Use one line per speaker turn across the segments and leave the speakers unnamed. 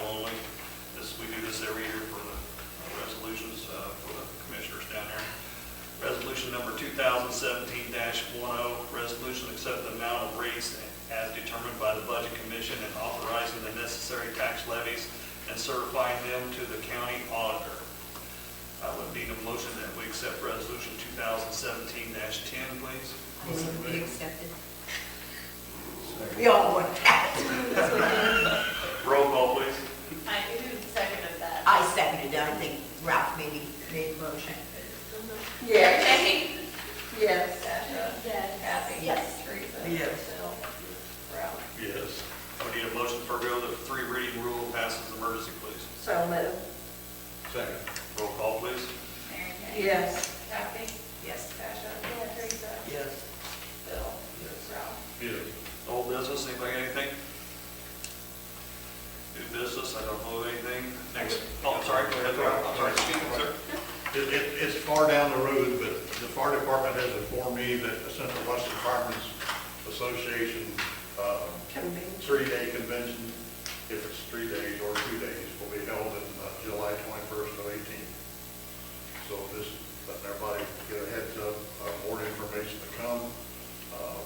uh, oh, Commission and authorizing the necessary tax levies and certifying them to the county auditor. I would need a motion that we accept Resolution 2017-10, please.
I move we accept it.
We all want that.
Roll call, please.
I do second of that.
I seconded it, I think Ralph maybe made a motion.
Yes.
Jackie?
Yes.
Gotcha. Kathy?
Yes.
Teresa?
Yes.
Phil? Ralph?
Yes. I would need a motion to forego the three reading rule and pass as emergency, please.
So moved.
Second. Roll call, please.
Mary Kay?
Yes.
Kathy?
Yes.
Gotcha. Teresa?
Yes.
Phil? Ralph?
Yes. Old business, anybody got anything? New business, I don't know anything. Next, oh, I'm sorry, go ahead, Rob. I'm sorry, excuse me, sir.
It, it, it's far down the road, but the fire department has informed me that the Central Western Firemen's Association, uh, three-day convention, if it's three days or two days, will be held in uh, July twenty-first to eighteenth. So just letting everybody get a heads up, uh, more information to come. Uh,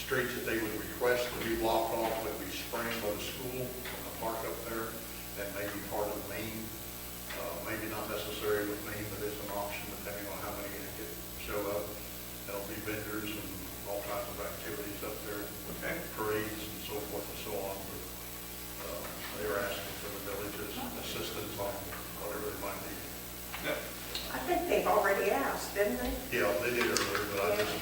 Streets that they would request to be blocked off would be Spring by the school and the park up there. That may be part of Maine, Uh, maybe not necessary with Maine, but it's an option depending on how many get, show up. There'll be vendors and all kinds of activities up there,
Okay.
parades and so forth and so on. But, uh, They are asking for the village's assistance on whatever it might be.
I think they've already asked, didn't they?
Yeah, they did earlier, but I just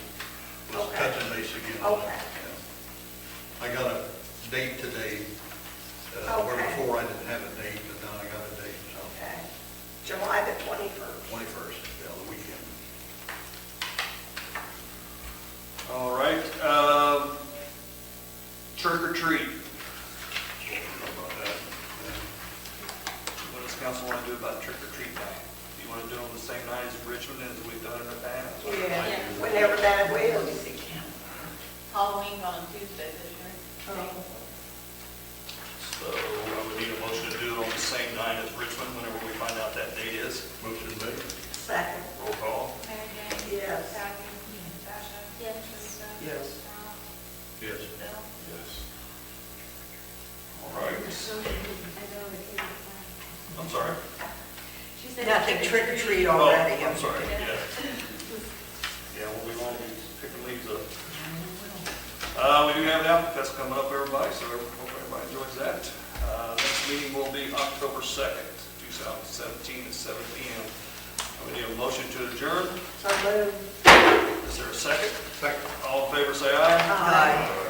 was
Okay.
touching base again. on
Okay.
that. Yeah. I got a date today, uh, where
Okay.
before I didn't have a date, but now I got a date, so
Okay. July the 21st.
twenty-first, yeah, the weekend.
All right, um, trick or treat,
So we'll talk about that. Yeah.
what does council want to do about trick or treat night? Do you want to do it on the same night as Richmond as we've done in the past?
Yeah, whenever that is.
Halloween on Tuesday this year.
Oh.
So I would need a motion to do it on the same night as Richmond, whenever we find out that date is.
Motion made,
Second.
Roll call.
Mary Kay?
Yes.
Kathy? Gotcha. Yes. Teresa?
Yes.
Ralph?
yes.
Phil?
All right. I'm sorry.
Nothing trick or treat
Oh,
already.
I'm sorry, yeah. Yeah, well, we won't be picking leaves up. Uh, we do have an outfit fest coming up, everybody, so I hope everybody enjoys that. Uh, next meeting will be October second, two thousand seventeen, at seven P M. We need a motion to adjourn.
So moved.
Is there a second?
Second.
All in favor, say aye.
Aye.